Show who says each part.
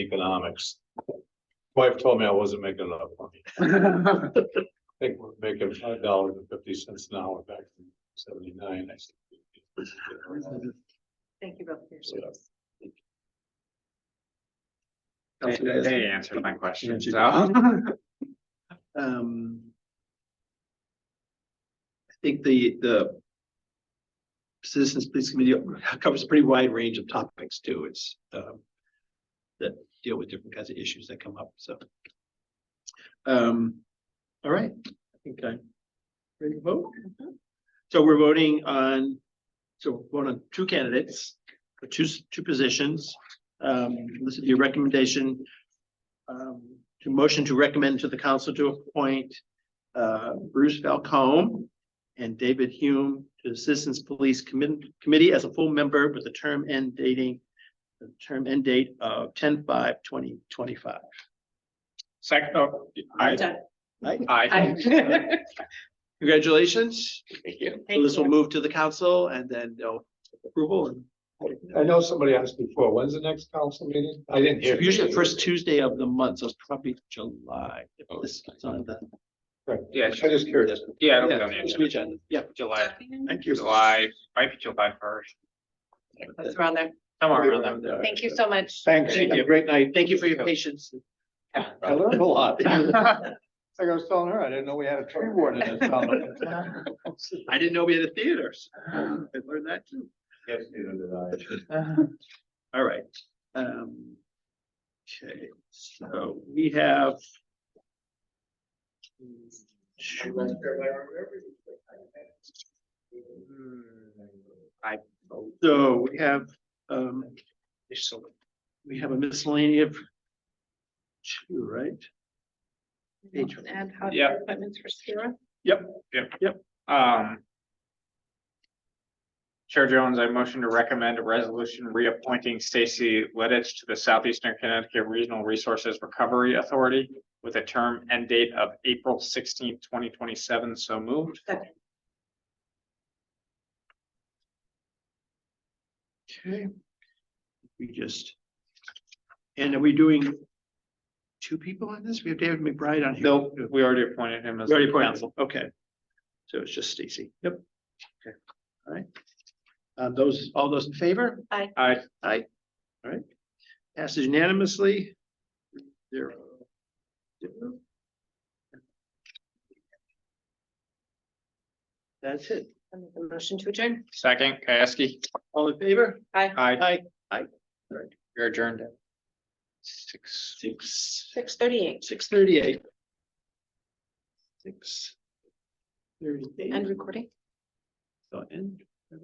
Speaker 1: economics. Wife told me I wasn't making enough money.
Speaker 2: Well,
Speaker 1: I think we're making five dollars and fifty cents an hour back in seventy-nine. I said,
Speaker 3: Thank you both for your service.
Speaker 4: They they answered my
Speaker 2: Yeah,
Speaker 4: question,
Speaker 2: she
Speaker 4: so.
Speaker 2: Um. I think the, the. Citizens Police Committee covers a pretty wide range of topics too. It's, um. That deal with different kinds of issues that come up, so. Um, all right, I think I. Ready to vote? So we're voting on, so vote on two candidates, for two, s- two positions. Um, this is your recommendation um, to motion to recommend to the council to appoint uh, Bruce Falcone and David Hume to the Citizens Police Commit- Committee as a full member with a term end dating the term end date of 10-5-2025.
Speaker 4: Second, oh, I,
Speaker 3: Done.
Speaker 4: I.
Speaker 2: Congratulations.
Speaker 4: Thank you.
Speaker 3: Thank
Speaker 2: This will
Speaker 3: you.
Speaker 2: move to the council and then they'll approval and
Speaker 1: I know somebody asked before, when's the next council meeting? I didn't hear.
Speaker 2: usually the first Tuesday of the month, so it's probably July. if
Speaker 1: Oh,
Speaker 2: this is on the-
Speaker 4: Yeah,
Speaker 1: I'm just curious.
Speaker 4: yeah, it'll be on the
Speaker 2: Yeah, it's
Speaker 4: agenda.
Speaker 2: agenda. Yeah.
Speaker 4: July,
Speaker 2: Thank you.
Speaker 4: July, might be July first,
Speaker 3: That's around there.
Speaker 4: somewhere around there.
Speaker 3: Thank you so much.
Speaker 1: Thanks.
Speaker 2: Thank you. Great night. Thank you for your patience. I learned a lot.
Speaker 1: Like I was telling her, I didn't know we had a tree warden in this town.
Speaker 2: I didn't know we had a theater. so I learned that too.
Speaker 1: Yes, neither did I.
Speaker 2: All right. Um. Okay, so we have.
Speaker 4: I-
Speaker 2: So we have, um, we have a miscellany of two, right? Thank you.
Speaker 3: Ad hoc
Speaker 4: Yeah.
Speaker 3: appointments for Sierra.
Speaker 4: Um. Chair Jones, I motion to recommend a resolution reappointing Stacy Lidditch to the Southeastern Connecticut Regional Resources Recovery Authority with a term end date of April sixteenth, twenty twenty-seven, so moved.
Speaker 2: Okay. We just. And are we doing? Two people on this? We have David McBride on here.
Speaker 4: No, we already appointed him as.
Speaker 2: We already appointed,
Speaker 4: council.
Speaker 2: okay. So it's just Stacy. Yep. Okay, all right. Uh, those, all those in favor?
Speaker 4: I,
Speaker 2: Aye. All right. Passes unanimously. Zero. Zero. That's it.
Speaker 3: I make a Motion to adjourn.
Speaker 4: second, Kieski,
Speaker 2: All in favor?
Speaker 3: Aye.
Speaker 4: I,
Speaker 2: Aye.
Speaker 4: you're adjourned. at Six.
Speaker 2: Six,
Speaker 3: Six thirty-eight.
Speaker 2: six thirty-eight. Six.
Speaker 3: End
Speaker 2: Thirty-eight.
Speaker 3: recording.
Speaker 2: So end.